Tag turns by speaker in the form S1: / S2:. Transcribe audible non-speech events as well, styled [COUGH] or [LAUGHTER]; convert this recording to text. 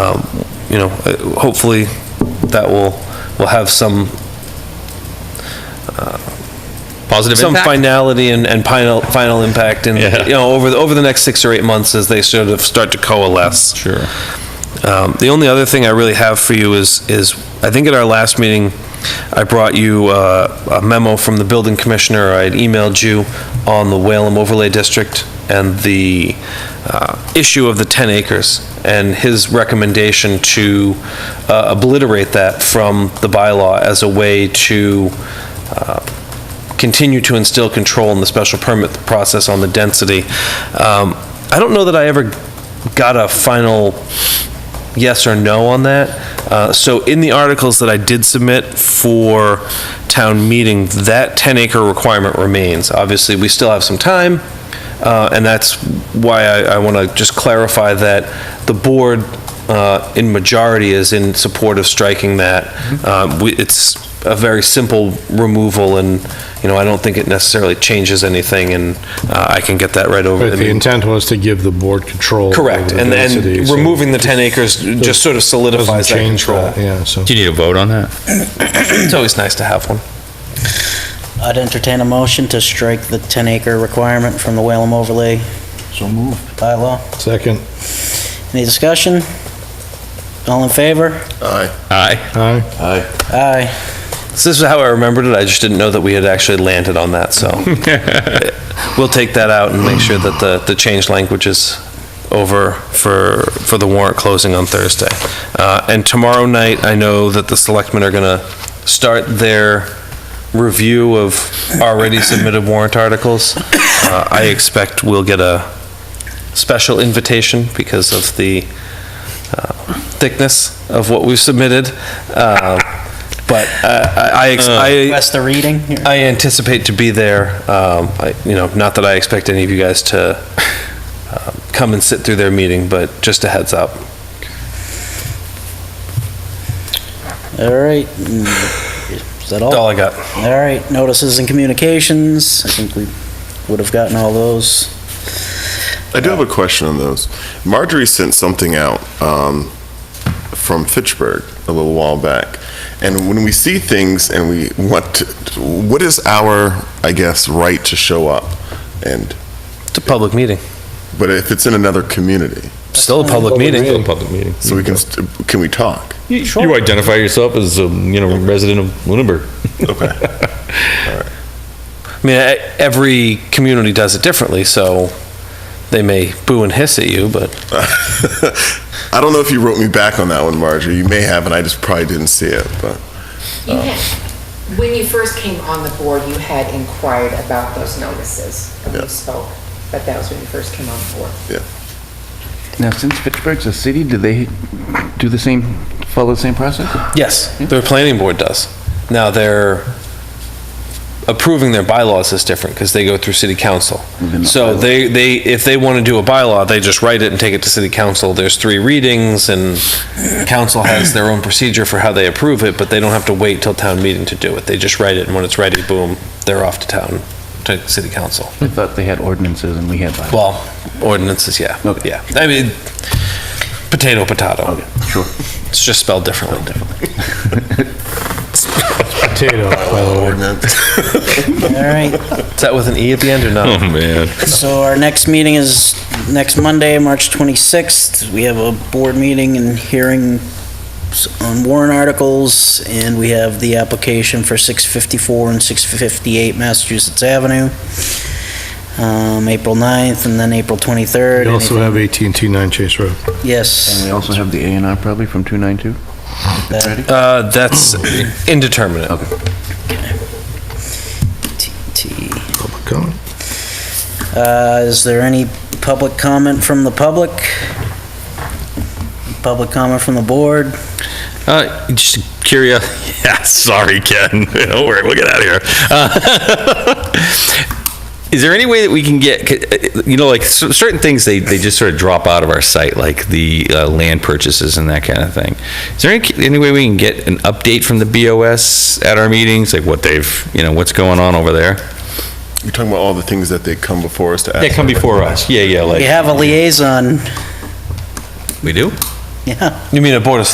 S1: um, you know, uh, hopefully that will, will have some, uh,
S2: Positive
S1: some
S2: impact?
S1: finality and, and final, final impact in,
S2: Yeah.
S1: you know, over, the over the next six or eight months as they sort of start to coalesce.
S2: Sure.
S1: Um, The only other thing I really have for you is, is, I think at our last meeting, I brought you uh, a memo from the building commissioner, I had emailed you on the Whalum overlay district and the uh, issue of the 10 acres, and his recommendation to uh, obliterate that from the bylaw as a way to uh, continue to instill control in the special permit process on the density. Um, I don't know that I ever got a final yes or no on that. Uh, So in the articles that I did submit for town meeting, that 10-acre requirement remains. Obviously, we still have some time, uh, and that's why I want to just clarify that the board uh, in majority is in support of striking that. Um, we- It's a very simple removal, and, you know, I don't think it necessarily changes anything, and uh, I can get that right over. I
S3: But the
S1: mean-
S3: intent was to give the board control.
S1: Correct,
S3: over the
S1: and,
S3: density,
S1: and
S3: so
S1: removing the 10 acres just sort of
S3: Doesn't
S1: solidifies that
S3: change
S1: control.
S3: that, yeah, so.
S2: Do you need a vote on that?
S1: It's always nice to have one.
S4: I'd entertain a motion to strike the 10-acre requirement from the Whalum overlay. So moved. Bylaw.
S3: Second,
S4: Any discussion? All in favor?
S2: Aye.
S3: aye,
S4: Aye.
S1: So this is how I remembered it, I just didn't know that we had actually landed on that, so. We'll take that out and make sure that the, the change language is over for, for the warrant closing on Thursday. Uh, and tomorrow night, I know that the selectmen are gonna start their review of already submitted warrant articles. Uh, I expect we'll get a special invitation because of the uh, thickness of what we've submitted. Uh, But uh, I, I ex- I,
S4: Request the reading?
S1: I anticipate to be there. Um, I, you know, not that I expect any of you guys to um, come and sit through their meeting, but just a heads up.
S4: All right. Is that all?
S1: That's all
S4: All
S1: I got.
S4: right, notices and communications. I think we would have gotten all those.
S5: I do have a question on those. Marjorie sent something out um, from Fitchburg a little while back. And when we see things and we want to, what is our, I guess, right to show up? And,
S1: It's a public meeting.
S5: but if it's in another community,
S1: Still a public meeting.
S2: Public meeting.
S5: so we can, st- can we talk? [LAUGHS]
S2: You identify yourself as, a you know, resident of Lunenburg.
S5: Okay.
S2: [LAUGHS]
S1: I mean, e- every community does it differently, so they may boo and hiss at you, but
S5: I don't know if you wrote me back on that one, Marjorie. You may have, and I just probably didn't see it, but.
S6: You had, when you first came on the board, you had inquired about those notices, and we
S5: Yeah.
S6: spoke, but that was when you first came on the board.
S7: Now, since Pittsburgh's a city, do they do the same, follow the same process?
S1: yes,
S7: Hmm?
S1: their planning board does. Now, their approving their bylaws is different because they go through city council. So they, they, if they want to do a bylaw, they just write it and take it to city council. There's three readings and council has their own procedure for how they approve it, but they don't have to wait till town meeting to do it. They just write it and when it's ready, boom, they're off to town, to city council.
S7: I thought they had ordinances and we had bylaws.
S1: Well, ordinances, yeah.
S7: Okay.
S1: Yeah. I mean, potato, potato.
S7: Okay, sure.
S1: It's just spelled differently.
S3: potato, by the way.
S4: All right,
S1: Is that with an E at the end or
S2: Oh,
S1: not?
S2: man.
S4: so our next meeting is next Monday, March 26th. We have a board meeting and hearing s- on warrant articles, and we have the application for 654 and 658 Massachusetts Avenue, um, April 9th, and then April 23rd.
S3: We also
S4: Anything-
S3: have at and T 9 Chase Road.
S7: And we
S4: Yes,
S7: also have the A and R probably from 292?
S4: That-
S7: Ready?
S1: Uh, that's indeterminate.
S4: T.
S3: Public comment?
S4: Uh, Is there any public comment from the public? Public comment from the board?
S2: Uh, just curious. [LAUGHS] Yeah, sorry, Ken. [LAUGHS] Don't worry, we'll get out of here. Uh, [LAUGHS] is there any way that we can get, uh, you know, like cer- certain things they, they just sort of drop out of our site, like the uh, land purchases and that kind of thing. Is there any, any way we can get an update from the BOS at our meetings, like what they've, you know, what's going on over there?
S5: You're talking about all the things that they come before us to ask.
S2: They come before us. Yeah, yeah,
S4: We
S2: like
S4: have a liaison,
S2: we do.
S4: [LAUGHS] Yeah.
S1: You mean a Board of